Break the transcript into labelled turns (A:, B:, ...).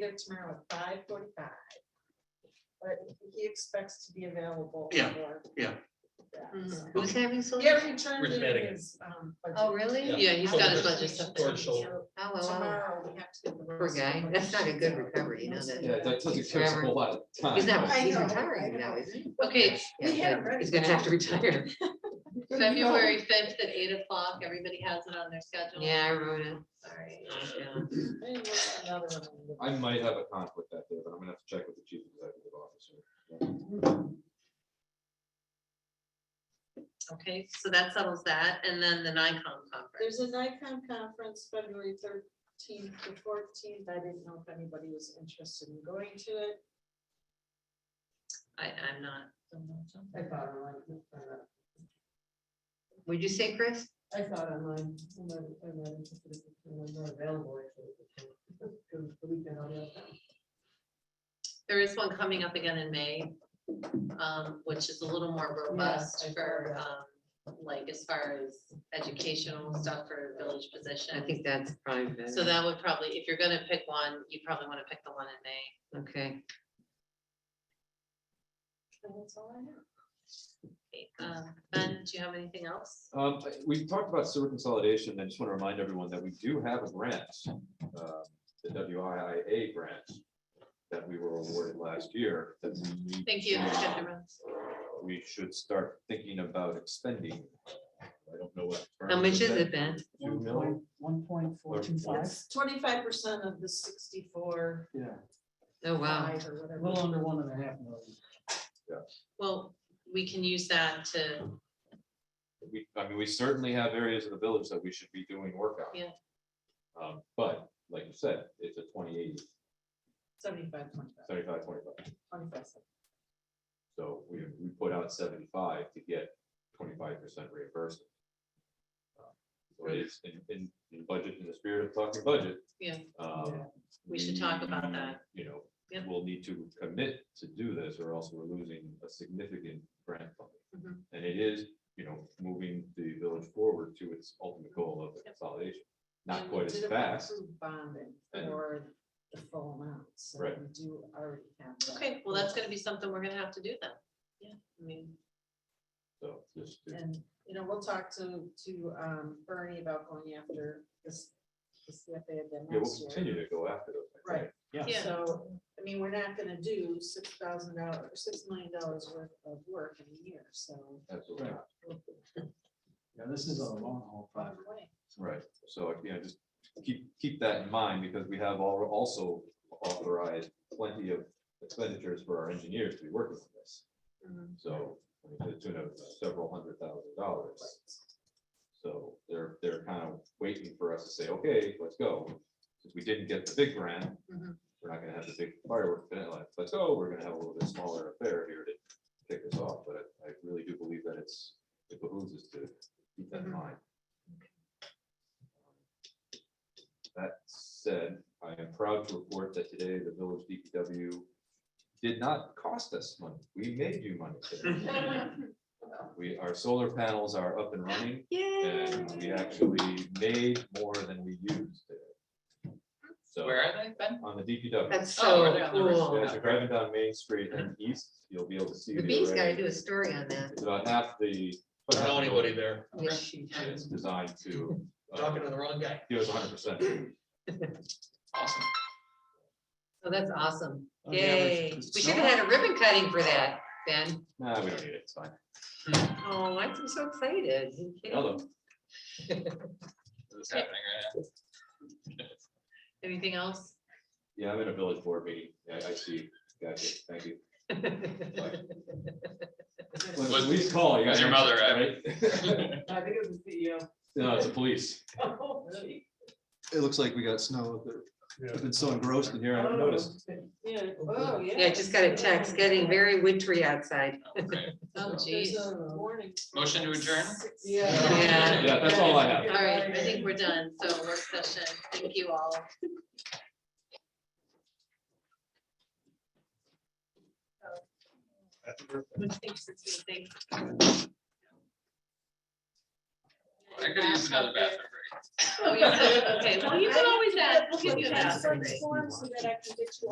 A: there tomorrow at five forty-five. But he expects to be available.
B: Yeah,
A: for
B: yeah.
A: that,
C: Mm.
A: so.
C: Who's having social?
A: Yeah, he turned
D: We're
A: in
D: submitting it.
A: his, um.
C: Oh,
A: budget.
C: really?
D: Yeah.
C: Yeah, he's got his budget
D: Shoulders,
C: stuff.
D: toward
C: Oh,
D: shoulder.
C: wow, wow.
A: Tomorrow, we have to get the.
C: Poor guy. That's not a good recovery, you know that.
E: Yeah, that doesn't take us a whole lot of time.
C: He's not,
A: I
C: he's
A: know,
C: retiring
A: I
C: now,
A: know.
C: isn't he? Okay.
A: We
C: yeah,
A: had
C: but
A: him ready
C: He's gonna
A: for
C: have to retire.
F: February fifth at eight o'clock, everybody has it on their schedule. Oh,
C: Yeah, I wrote it.
F: Sorry.
C: Yeah.
A: Maybe we'll find out another one.
E: I might have a conflict that day, but I'm gonna have to check with the chief executive officer.
F: Okay, so that settles that. And then the Nikon conference.
A: There's a Nikon conference February thirteenth to fourteenth. I didn't know if anybody was interested in going to it.
F: I, I'm not.
G: I thought online.
C: Would you say, Chris?
G: I thought online. I'm not, I'm not interested in- I'm not available. actually, because The weekend I'll have time.
F: There is one coming up again in May, um, which is a little more robust
G: I saw
F: for,
G: that.
F: um, like as far as educational stuff for village position.
C: I think that's probably better.
F: So that would probably, if you're gonna pick one, you probably wanna pick the one in May.
C: Okay.
A: And that's all I know.
F: Um, Ben, do you have anything else?
E: Um, we've talked about sewer consolidation, and I just want to remind everyone that we do have a grant, uh, the WIIA grant that we were awarded last year. that we
F: Thank you.
E: should-
F: Dr. Rhodes.
E: We should start thinking about expending. I don't know what.
C: How
E: term
C: much is
E: that?
C: it, Ben?
E: Two million?
G: One point four two five,
A: It's twenty-five percent of the sixty-four.
G: yeah,
C: Oh, wow.
A: five or
G: a
A: whatever.
G: little under one and a half million.
F: Well, we can use that to,
E: We, I mean, we certainly have areas of the village that we should be doing work on.
F: Yeah.
E: Um, but like you said, it's a 20-80,
A: 75, 25,
E: 75, 25.
A: 25.
E: So we, we put out seventy-five to get twenty-five percent reimbursement. Uh, So it is in, in, in budget, in the spirit of talking budget.
F: Yeah.
E: um,
F: We should talk about that.
E: we, You know,
F: Yep.
E: we'll need to commit to do this or else we're losing a significant grant funding.
F: Mhm.
E: And it is, you know, moving the village forward to its ultimate goal of
F: Yep.
E: consolidation, not
A: And
E: quite
A: we
E: as
A: did
E: fast.
A: approve Bonding
E: And-
A: or the full amount, so
E: Right.
A: we do already have. that.
F: okay, well, that's gonna be something we're gonna have to do then. Yeah, I mean,
E: So just to
A: And, you know, we'll talk to, to um, Bernie about going after this, this CFA again
E: Yeah, we'll
A: next year.
E: continue to go after those. I think.
A: Right.
F: Yeah.
A: So, I mean, we're not gonna do six thousand dollars, six million dollars worth of work in a year, so.
E: Absolutely.
G: Right. Yeah, this is a long haul project.
E: Right, so, you know, just keep, keep that in mind, because we have all, also authorized plenty of expenditures for our engineers to be working on this. So, I mean, to the tune of several hundred thousand dollars. So they're, they're kind of waiting for us to say, okay, let's go. Since we didn't get the big grant,
F: Mhm.
E: we're not gonna have the big fireworks, event, like, let's go, we're gonna have a little bit smaller affair here to kick this off, but I I really do believe that it's, it behooves us to keep that in
F: Mhm.
E: mind. That said, I am proud to report that today the village DPW did not cost us money. We made you money. today. We, our solar panels are up and running and we actually made more than we used. today. So
D: Where are they, Ben?
E: on the DPW.
C: That's
D: Oh,
C: so
D: we're down the road.
C: cool.
E: As you're driving down Main Street and east, you'll be able to see.
C: The Bees gotta
E: array.
C: do a story on that.
E: It's about half the.
D: I don't know anybody there.
C: Yeah.
E: It's designed to. uh,
D: Talking to the wrong guy.
E: Give us hundred percent.
D: Awesome.
C: So that's awesome.
G: Oh, yeah,
C: Yay.
G: there's-
C: We should have had a ribbon cutting for that, Ben.
E: Nah, we don't need it, it's fine.
C: Oh, I'm so excited. Are you kidding?
E: Although,
D: This is happening right now.
F: anything else?
E: yeah, I'm in a village board meeting, I, I see, gotcha, thank you.
D: Was-
E: Please call. you
D: was
E: got
D: your mother,
E: right?
G: I think it was the
A: E
G: CEO.
E: No, it's the police.
G: Oh, really?
E: It looks like we got snow,
D: I've
E: been so engrossed in here,
G: Oh,
A: Yeah, oh, yeah.
C: Yeah, I just got a text, getting very wintry outside.
D: Okay.
F: Oh,
A: There's uh,
F: geez.
A: a warning.
D: Motion to adjourn?
A: Six-
C: Yeah.
E: Yeah, that's all I have.
F: All right, I think we're done. So work session. Thank you all.
D: I could use another bathroom break.
F: Oh, you could, okay, well, you can always add, we'll give you
H: Put
F: an
H: that
F: add.
H: in some form So that I can get you